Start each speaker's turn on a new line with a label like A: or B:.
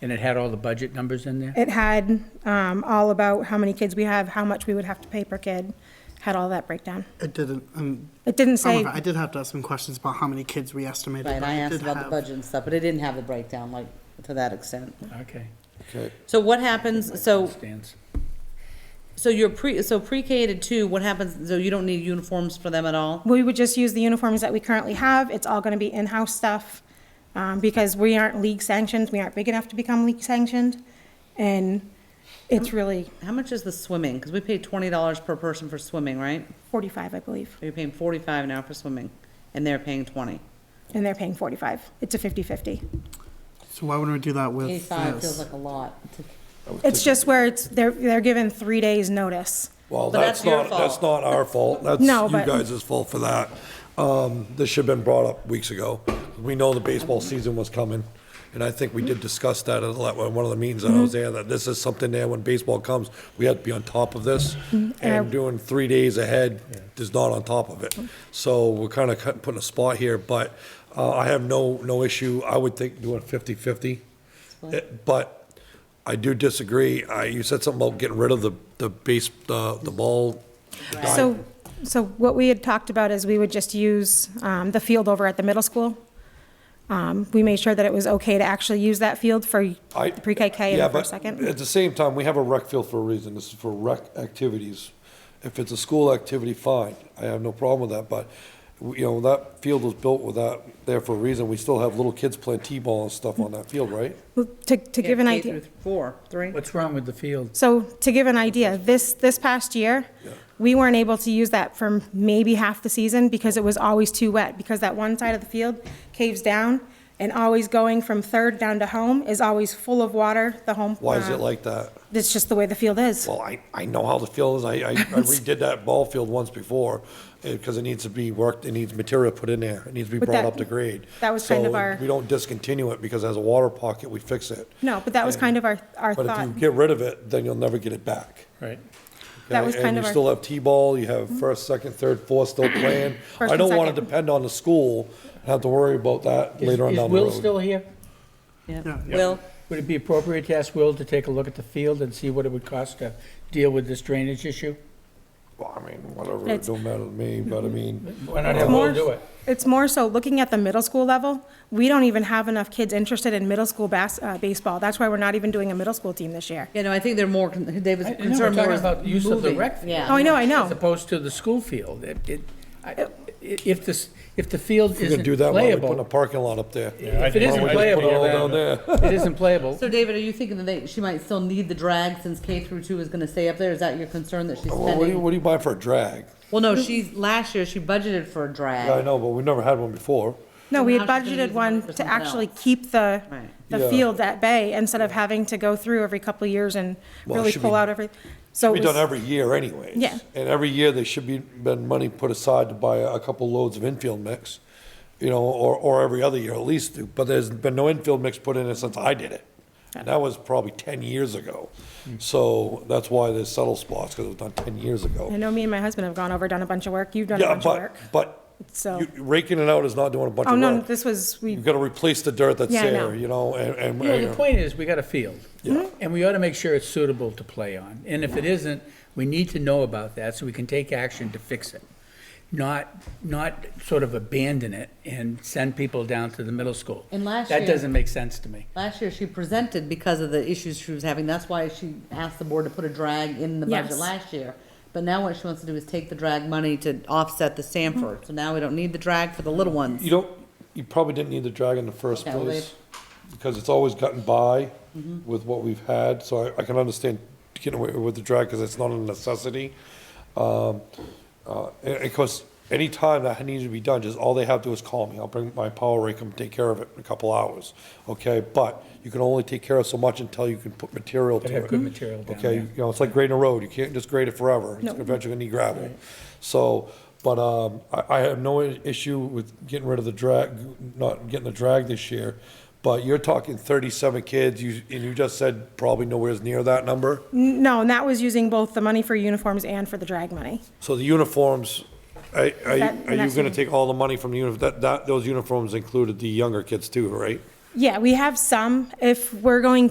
A: And it had all the budget numbers in there?
B: It had um, all about how many kids we have, how much we would have to pay per kid, had all that breakdown.
C: It didn't, um,
B: It didn't
C: some of
B: say,
C: it- I did have to ask some questions about how many kids we estimated.
D: Right,
C: but
D: I
C: it
D: asked
C: did
D: about the
C: have-
D: budget and stuff, but it didn't have the breakdown, like, to that extent.
A: Okay.
E: Okay,
D: So what happens, so,
A: Stands.
D: so you're pre, so pre-K to two, what happens, so you don't need uniforms for them at all?
B: we would just use the uniforms that we currently have. It's all going to be in-house stuff um, because we aren't league sanctioned. We aren't big enough to become league sanctioned. And it's really
D: How much is the swimming? Because we pay twenty dollars per person for swimming, right?
B: 45, I believe,
D: So You're paying forty-five now for swimming, and they're paying twenty.
B: and they're paying 45. It's a 50/50.
C: So why wouldn't we do that with
D: Eighty-five feels
C: this?
D: like a lot. to-
B: It's just where it's, they're, they're given three days' notice.
E: well,
D: But that's
E: that's
D: your
E: not, that's
D: fault.
E: not our fault, that's you
B: No, but-
E: guys' fault for that. Um, this should have been brought up weeks ago. We know the baseball season was coming, and I think we did discuss that at le- one of the meetings that I was
D: Mm-hmm.
E: there, that this is something there when baseball comes, we have to be on top of this.
D: Mm-hmm.
E: And doing three days ahead is not on top of it.
D: Mm.
E: So we're kind of putting a spot here, but, uh, I have no, no issue, I would think doing fifty-fifty. It- Eh, But I do disagree. I, you said something about getting rid of the, the base, the, the ball.
B: So, so what we had talked about is we would just use um, the field over at the middle school. Um, We made sure that it was okay to actually use that field for
E: I-
B: pre-KK
E: Yeah,
B: and
E: but
B: first, second.
E: At the same time, we have a rec field for a reason. This is for rec activities. If it's a school activity, fine. I have no problem with that, but, you know, that field was built with that there for a reason. We still have little kids playing T-ball and stuff on that field, right?
B: To, to give an
D: Yeah, K
B: idea,
D: through Four, three.
A: What's wrong with the field?
B: so to give an idea, this, this past year, we weren't able to use that for maybe half the season because it was always too wet. Because that one side of the field caves down and always going from third down to home is always full of water, the home.
E: Why is
B: uh,
E: it like that?
B: It's just the way the field is.
E: Well, I, I know how the field is. I, I I redid that ball field once before, because it needs to be worked, it needs material put in there. It needs to be
B: But
E: brought
B: that-
E: up to grade.
B: that was kind of our-
E: So we don't discontinue it, because as a water pocket, we fix it.
B: No, but that was kind of our, our
E: But if
B: thought.
E: you get rid of it, then you'll never get it back.
A: Right.
B: That was
E: Okay,
B: kind of our- Mm-hmm.
E: And you still have T-ball, you have first, second, third, fourth still playing.
B: First
E: I
B: and
E: don't want to
B: second.
E: depend on the school, and have to worry about that later on
A: Is-
E: down the
A: Is Will still
E: road.
A: here?
D: Yeah.
C: Yeah.
D: Will,
A: Would it be appropriate to ask Will to take a look at the field and see what it would cost to deal with this drainage issue?
E: Well, I mean, whatever, it
B: It's-
E: don't matter to me, but I mean,
A: Why not have Will do it?
B: It's more so looking at the middle school level, we don't even have enough kids interested in middle school bas- uh, baseball. That's why we're not even doing a middle school team this year.
D: you know, I think they're more, con- David's
A: I- I know,
D: concerned
A: we're
D: more
A: talking
D: is
A: about use of the
D: moving.
A: rec field.
D: Yeah.
B: Oh, I know, I
A: As
B: know.
A: opposed to the school field. It, it, I- i- if this, if the field
E: we're gonna
A: isn't
E: do that while we put a
A: playable,
E: parking lot up there.
A: if it isn't
E: Why don't we just put it all
A: playable,
E: down
A: then-
E: there?
A: it isn't playable.
D: So David, are you thinking that they, she might still need the drag since K through two is gonna stay up there? Is that your concern that she's
E: Well, what do you,
D: spending?
E: what do you buy for a drag?
D: Well, no, she's, last year she budgeted for a
E: Yeah, I
D: drag.
E: know, but we've never had one before.
B: No, we had
D: Now she's gonna use
B: budgeted
D: the money
B: one
D: for
B: to
D: something
B: actually
D: else.
B: keep the,
D: Right.
B: the
E: Yeah.
B: field at bay instead of having to go through every couple of years and
E: Well, it
B: really
E: should
B: pull
E: be-
B: out every, so
E: We
B: Oh, it
E: done
B: was,
E: every year anyways.
B: Yeah.
E: And every year, there should be, been money put aside to buy a couple loads of infield mix, you know, or, or every other year at least, but there's been no infield mix put in it since I did it. And that was probably ten years ago.
B: Hmm.
E: So that's why there's settle spots, because it was done ten years
B: I
E: ago.
B: know me and my husband have gone over, done a bunch of work, you've done a
E: Yeah,
B: bunch of
E: but,
B: work.
E: but
B: So-
E: you- raking it out is not doing a bunch
B: Oh,
E: of
B: no,
E: work.
B: this was, we,
E: You've got to replace the dirt that's
B: Yeah, I
E: there,
B: know.
E: you know, and,
A: Well, the
E: and,
A: point is, we got a field. And we ought to make sure it's suitable to play on. And if it isn't, we need to know about that so we can take action to fix it. Not, not sort of abandon it and send people down to the middle school.
D: And last
A: That
D: year-
A: doesn't make sense to me.
D: Last year she presented because of the issues she was having. That's why she asked the board to put a drag in the budget
B: Yes.
D: last year. But now what she wants to do is take the drag money to offset the Sanford. So now we don't need the drag for the little ones.
E: You don't, you probably didn't need the drag in the first
D: Okay, well,
E: place, because it's always gotten by with what we've had, so I, I can understand getting away with the drag, because it's not a necessity. Um, uh, and, and of course, anytime that needs to be done, just all they have to do is call me, I'll bring my power rake and take care of it in a couple hours, okay? But you can only take care of so much until you can put material to
A: Gotta
E: it.
A: have good material down
E: Okay,
A: there.
E: you know, it's like grading a road, you can't just grade it forever, it's eventually gonna need gravel. So, but, um, I, I have no i- issue with getting rid of the drag, not getting the drag this year, but you're talking thirty-seven kids, you, and you just said probably nowhere's near that number,
B: no, and that was using both the money for uniforms and for the drag money.
E: so the uniforms, are, are you,
B: That-
E: are you
B: that's-
E: gonna take all the money from the uni, that, that, those uniforms included the younger kids too, right?
B: Yeah, we have some. If we're going